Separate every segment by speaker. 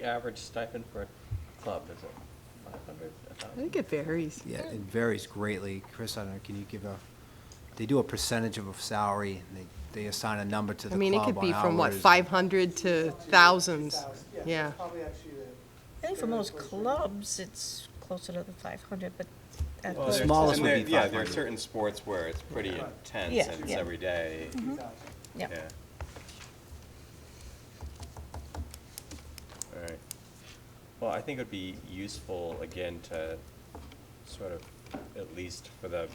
Speaker 1: The average stipend for a club, is it 500?
Speaker 2: I think it varies.
Speaker 3: Yeah, it varies greatly. Chris, I don't know, can you give a, they do a percentage of a salary, and they, they assign a number to the
Speaker 2: I
Speaker 3: club
Speaker 2: mean, it
Speaker 3: on
Speaker 2: could be from, what,
Speaker 3: hours.
Speaker 2: 500 to thousands? Yeah.
Speaker 4: Probably actually the
Speaker 5: I think for most clubs, it's closer to the five hundred, but. at
Speaker 1: Well,
Speaker 3: The
Speaker 5: the-
Speaker 1: there's-
Speaker 3: smallest
Speaker 6: And
Speaker 3: would
Speaker 6: there-
Speaker 3: be
Speaker 6: Yeah, there are
Speaker 3: 500.
Speaker 6: certain sports where it's pretty intense
Speaker 5: Yeah,
Speaker 6: and it's
Speaker 5: yeah. Mm-hmm.
Speaker 6: every day.
Speaker 5: Yeah.
Speaker 6: Yeah. All right. Well, I think it would be useful, again, to sort of, at least for the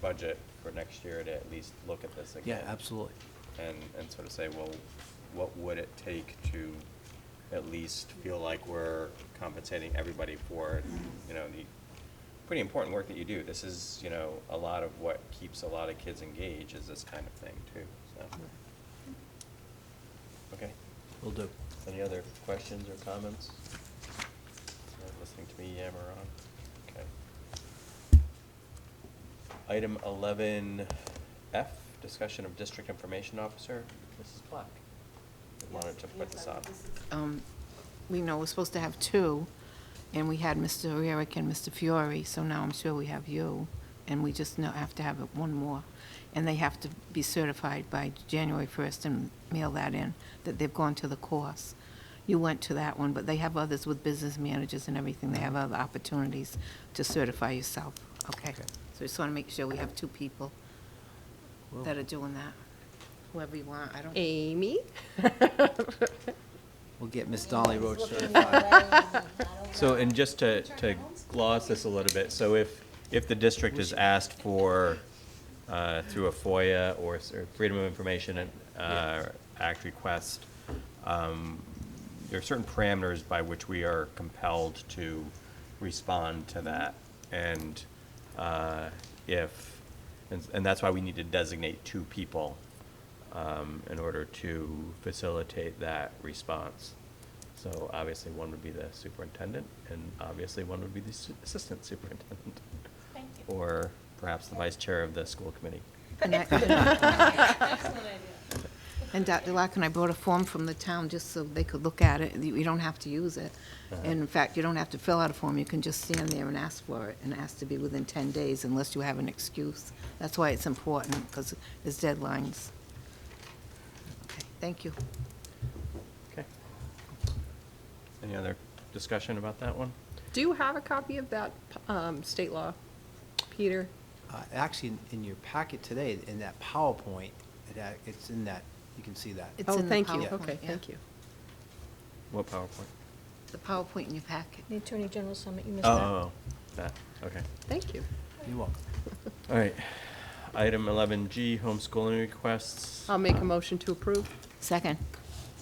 Speaker 6: budget for next year, to at least look at this
Speaker 3: Yeah,
Speaker 6: again.
Speaker 3: absolutely.
Speaker 6: And, and sort of say, well, what would it take to at least feel like we're compensating everybody for, you know, the pretty important work that you do. This is, you know, a lot of what keeps a lot of kids engaged is this kind of thing too, so. Okay,
Speaker 3: Will do.
Speaker 6: any other questions or comments? Not Listening to me yammer on, okay. Item eleven F, discussion of district information officer, Mrs. Black. Wanted to put this on.
Speaker 7: um, we know we're supposed to have two, and we had Mr. Rarick and Mr. Fiore, so now I'm sure we have you, and we just know, have to have one more. And they have to be certified by January 1st and mail that in, that they've gone to the course. You went to that one, but they have others with business managers and everything, they have other opportunities to certify yourself, okay?
Speaker 3: Okay.
Speaker 7: So just want to make sure we have two people that are doing that, whoever you want, I don't.
Speaker 2: Amy?
Speaker 3: We'll get Miss Dolly Roach certified.
Speaker 1: So, and just to, to gloss this a little bit, so if, if the district is asked for, uh, through a FOIA or s- or Freedom of Information uh, Act request, um, there are certain parameters by which we are compelled to respond to that. And uh, if, and and that's why we need to designate two people um, in order to facilitate that response. So obviously, one would be the superintendent, and obviously, one would be the su- assistant superintendent.
Speaker 8: Thank you.
Speaker 1: Or perhaps the vice chair of the school committee.
Speaker 7: And I-
Speaker 8: Excellent idea.
Speaker 7: And Dr. Larkin, I brought a form from the town just so they could look at it. You you don't have to use it.
Speaker 1: Uh-huh.
Speaker 7: And in fact, you don't have to fill out a form. You can just stand there and ask for it and ask to be within 10 days unless you have an excuse. That's why it's important because there's deadlines. Okay, Thank you.
Speaker 1: Okay. Any other discussion about that one?
Speaker 2: Do you have a copy of that um, state law, Peter?
Speaker 3: Uh, Actually, in- in your packet today, in that PowerPoint, it ac- it's in that, you can see that.
Speaker 7: It's
Speaker 2: Oh,
Speaker 7: in the
Speaker 2: thank you.
Speaker 7: PowerPoint,
Speaker 2: Okay,
Speaker 7: yeah.
Speaker 2: thank you.
Speaker 1: What PowerPoint?
Speaker 7: The PowerPoint in your packet.
Speaker 5: The Attorney General Summit, you missed
Speaker 1: Oh,
Speaker 5: that.
Speaker 1: oh, oh, that, okay.
Speaker 2: Thank you.
Speaker 3: You're welcome.
Speaker 1: All right. Item eleven G, homeschooling requests.
Speaker 2: I'll make a motion to approve.
Speaker 7: Second.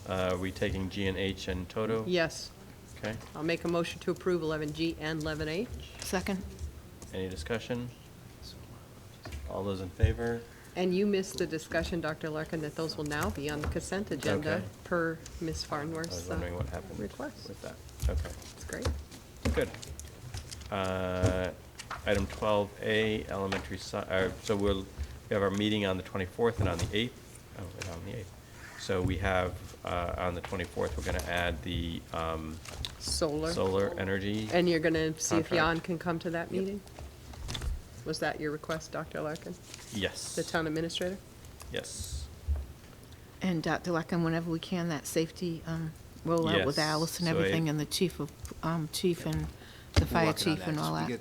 Speaker 1: Uh, Are we taking G and H and Toto?
Speaker 2: Yes,
Speaker 1: Okay.
Speaker 2: I'll make a motion to approve 11G and 11H.
Speaker 7: Second.
Speaker 1: Any discussion? All those in favor?
Speaker 2: And you missed the discussion, Dr. Larkin, that those will now be on the consent agenda
Speaker 1: Okay.
Speaker 2: per Ms.
Speaker 1: I was
Speaker 2: Farnworth's uh,
Speaker 1: wondering what happened
Speaker 2: request.
Speaker 1: with that. Okay.
Speaker 2: It's great.
Speaker 1: Good. Uh, Item twelve A, elementary, sci- uh, so we'll, we have our meeting on the twenty-fourth and on the eighth, oh, and on the eighth. So we have, uh, on the twenty-fourth, we're gonna add the um,
Speaker 2: Solar.
Speaker 1: solar energy.
Speaker 2: And you're going to see if Jan
Speaker 1: Contract.
Speaker 2: can come to that meeting? Was that your request, Dr. Larkin,
Speaker 1: Yes.
Speaker 2: the town administrator?
Speaker 1: Yes.
Speaker 7: And Dr. Larkin, whenever we can, that safety um, rollout with
Speaker 1: Yes,
Speaker 7: Alice and
Speaker 1: so I-
Speaker 7: everything and the chief of, um, chief and the fire
Speaker 3: working on
Speaker 7: chief
Speaker 3: that.
Speaker 7: and
Speaker 3: So
Speaker 7: all
Speaker 3: we
Speaker 7: that.
Speaker 3: get-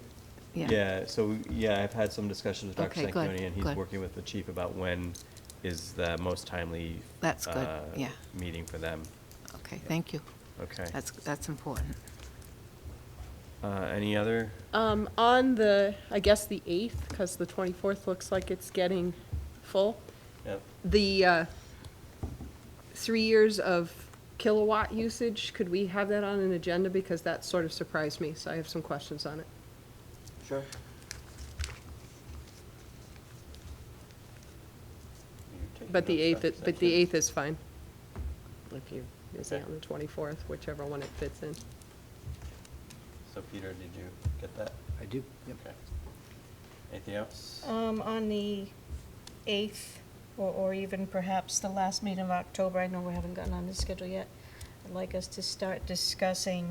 Speaker 1: Yeah, so, we- yeah, I've had some discussions with Dr.
Speaker 7: Okay, good,
Speaker 1: Sanquioni, and he's
Speaker 7: good.
Speaker 1: working with the chief about when is the most timely.
Speaker 7: That's good,
Speaker 1: uh,
Speaker 7: yeah.
Speaker 1: Meeting for them.
Speaker 7: Okay, thank you.
Speaker 1: Okay.
Speaker 7: That's, that's important.
Speaker 1: Uh, Any other?
Speaker 2: Um, on the, I guess the eighth, because the twenty-fourth looks like it's getting full,
Speaker 1: Yep.
Speaker 2: the, uh, three years of kilowatt usage, could we have that on an agenda? Because that sort of surprised me, so I have some questions on it.
Speaker 6: Sure.
Speaker 2: But the eighth, is- but the eighth is fine. If you, is it on the twenty-fourth, whichever one it fits in.
Speaker 6: So Peter, did you get that?
Speaker 3: I do, yep.
Speaker 6: Okay. Anything else?
Speaker 1: oh.
Speaker 5: Um, on the eighth, or, or even perhaps the last meeting of October, I know we haven't gotten on the schedule yet. I'd like us to start discussing